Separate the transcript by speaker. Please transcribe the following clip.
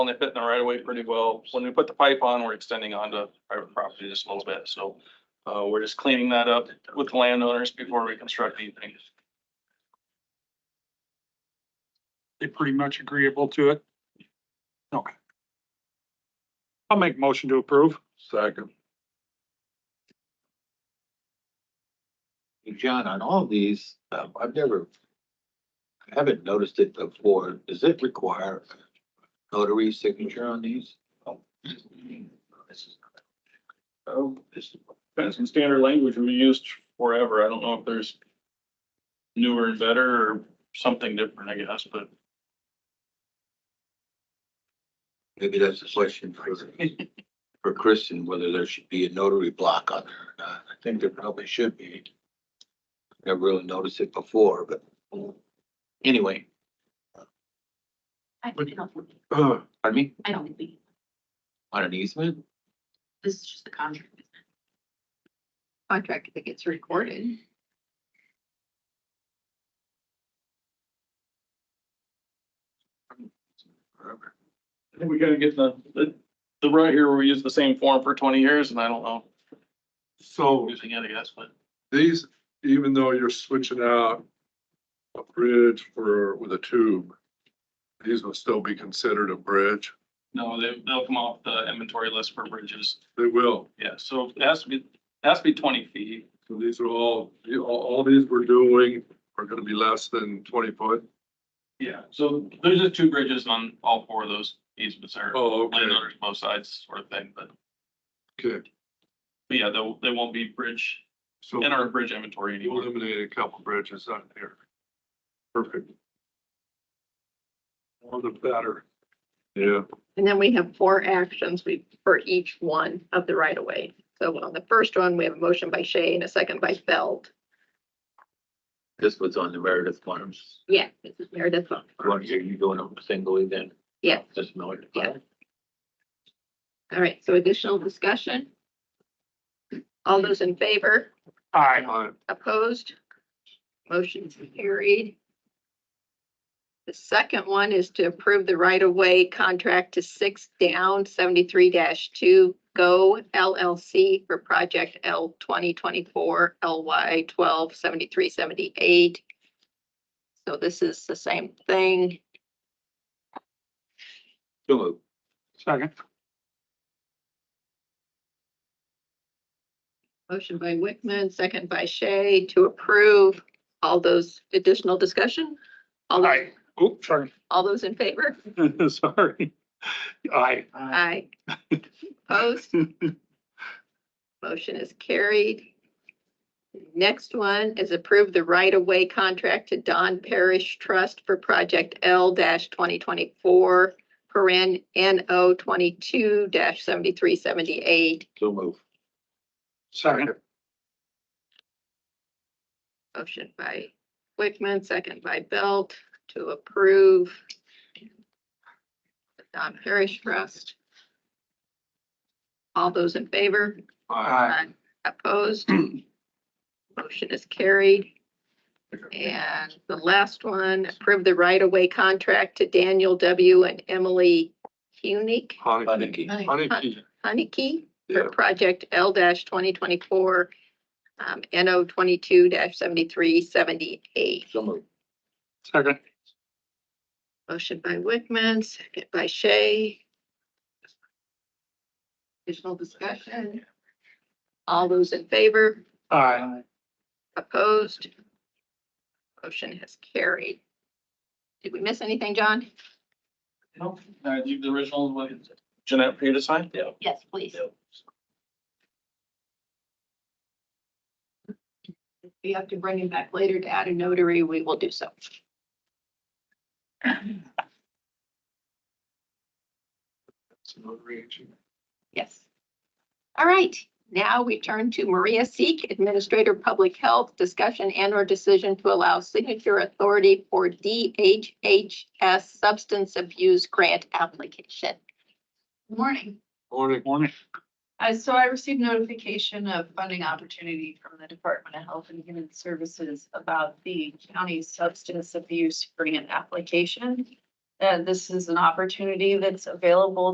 Speaker 1: And they fit in the right of way pretty well. When we put the pipe on, we're extending onto private property just a little bit, so. Uh, we're just cleaning that up with the landowners before we construct anything.
Speaker 2: They pretty much agreeable to it? Okay. I'll make motion to approve.
Speaker 3: Second.
Speaker 4: John, on all these, um, I've never, I haven't noticed it before. Does it require notary signature on these?
Speaker 1: Oh, this that's some standard language we used forever. I don't know if there's newer and better or something different, I guess, but
Speaker 4: Maybe that's a question for, for Kristen, whether there should be a notary block on there. or not. I think there probably should be. Never really noticed it before, but anyway,
Speaker 5: I I don't, think-
Speaker 3: Uh,
Speaker 4: pardon me,
Speaker 5: I don't think we,
Speaker 4: on an easement?
Speaker 5: this is just the contract.
Speaker 6: contract that gets recorded.
Speaker 1: I think we gotta get the, the, the right here, we use the same form for twenty years and I don't know,
Speaker 3: So
Speaker 1: using it, I guess, but.
Speaker 3: these, even though you're switching out a bridge for, with a tube, these will still be considered a bridge.
Speaker 1: No, they, they'll come off the inventory list for bridges.
Speaker 3: They will.
Speaker 1: Yeah, so it has to be, it has to be twenty feet.
Speaker 3: So these are all, you- all, all these we're doing are gonna be less than twenty foot.
Speaker 1: Yeah. So there's just two bridges on all four of those easements there.
Speaker 3: Oh, okay,
Speaker 1: Landowners both sides sort of thing, but,
Speaker 3: okay.
Speaker 1: but yeah, they, they won't be bridge,
Speaker 3: So
Speaker 1: in our bridge inventory
Speaker 3: you
Speaker 1: anymore.
Speaker 3: eliminated a couple bridges on here. Perfect. All the better. Yeah,
Speaker 6: And then we have four actions we, for each one of the right of way. So on the first one, we have a motion by Shay and a second by Feld.
Speaker 4: This was on the Meredith Farms.
Speaker 6: Yeah, this is Meredith.
Speaker 4: Are you doing them singly then?
Speaker 6: Yeah.
Speaker 4: Just Meredith.
Speaker 6: Yeah. All right, so additional discussion? All those in favor,
Speaker 2: Aye.
Speaker 3: all right,
Speaker 6: opposed? Motion's carried. The second one is to approve the right of way contract to six down seventy-three two Go LLC for project L twenty twenty-four LY twelve seventy-three seventy-eight. So this is the same thing.
Speaker 4: So moved.
Speaker 2: Second.
Speaker 6: Motion by Wickman, second by Shay to approve. All those additional discussion? All, those-
Speaker 2: Aye. Oops, sorry.
Speaker 6: all those in favor?
Speaker 2: Sorry. Aye.
Speaker 6: Aye. Opposed? Motion is carried. Next one is approve the right-of-way contract to Don Parish Trust for Project L twenty twenty-four, paren NO twenty-two seventy-three seventy-eight.
Speaker 4: So moved.
Speaker 2: Second.
Speaker 6: Motion by Wickman, second by Belt to approve. the Don Parish Trust. All those in favor?
Speaker 2: Aye.
Speaker 6: Opposed? Motion is carried. And the last one, approve the right-of-way contract to Daniel W. and Emily Hunick,
Speaker 3: Honey,
Speaker 4: Honeycomb.
Speaker 3: honey key,
Speaker 6: Honeyke
Speaker 3: Yeah.
Speaker 6: for project L twenty twenty-four, um, NO twenty-two seventy-three seventy-eight.
Speaker 4: So moved.
Speaker 2: Second.
Speaker 6: Motion by Wickman, second by Shay. Additional discussion? All those in favor,
Speaker 2: Aye.
Speaker 6: opposed? Motion has carried. Did we miss anything, John?
Speaker 1: No, I leave the original, what is it? Jeanette, for you to sign? Yeah.
Speaker 5: Yes, please.
Speaker 6: If you have to bring him back later to add a notary, we will do so. Yes. All right, now we turn to Maria Seek, Administrator Public Health, discussion and or decision to allow signature authority for DHHS substance abuse grant application.
Speaker 7: Morning.
Speaker 3: morning.
Speaker 2: Morning.
Speaker 7: Uh, so I received notification of funding opportunity from the Department of Health and Human Services about the county substance abuse grant application. Uh, this is an opportunity that's available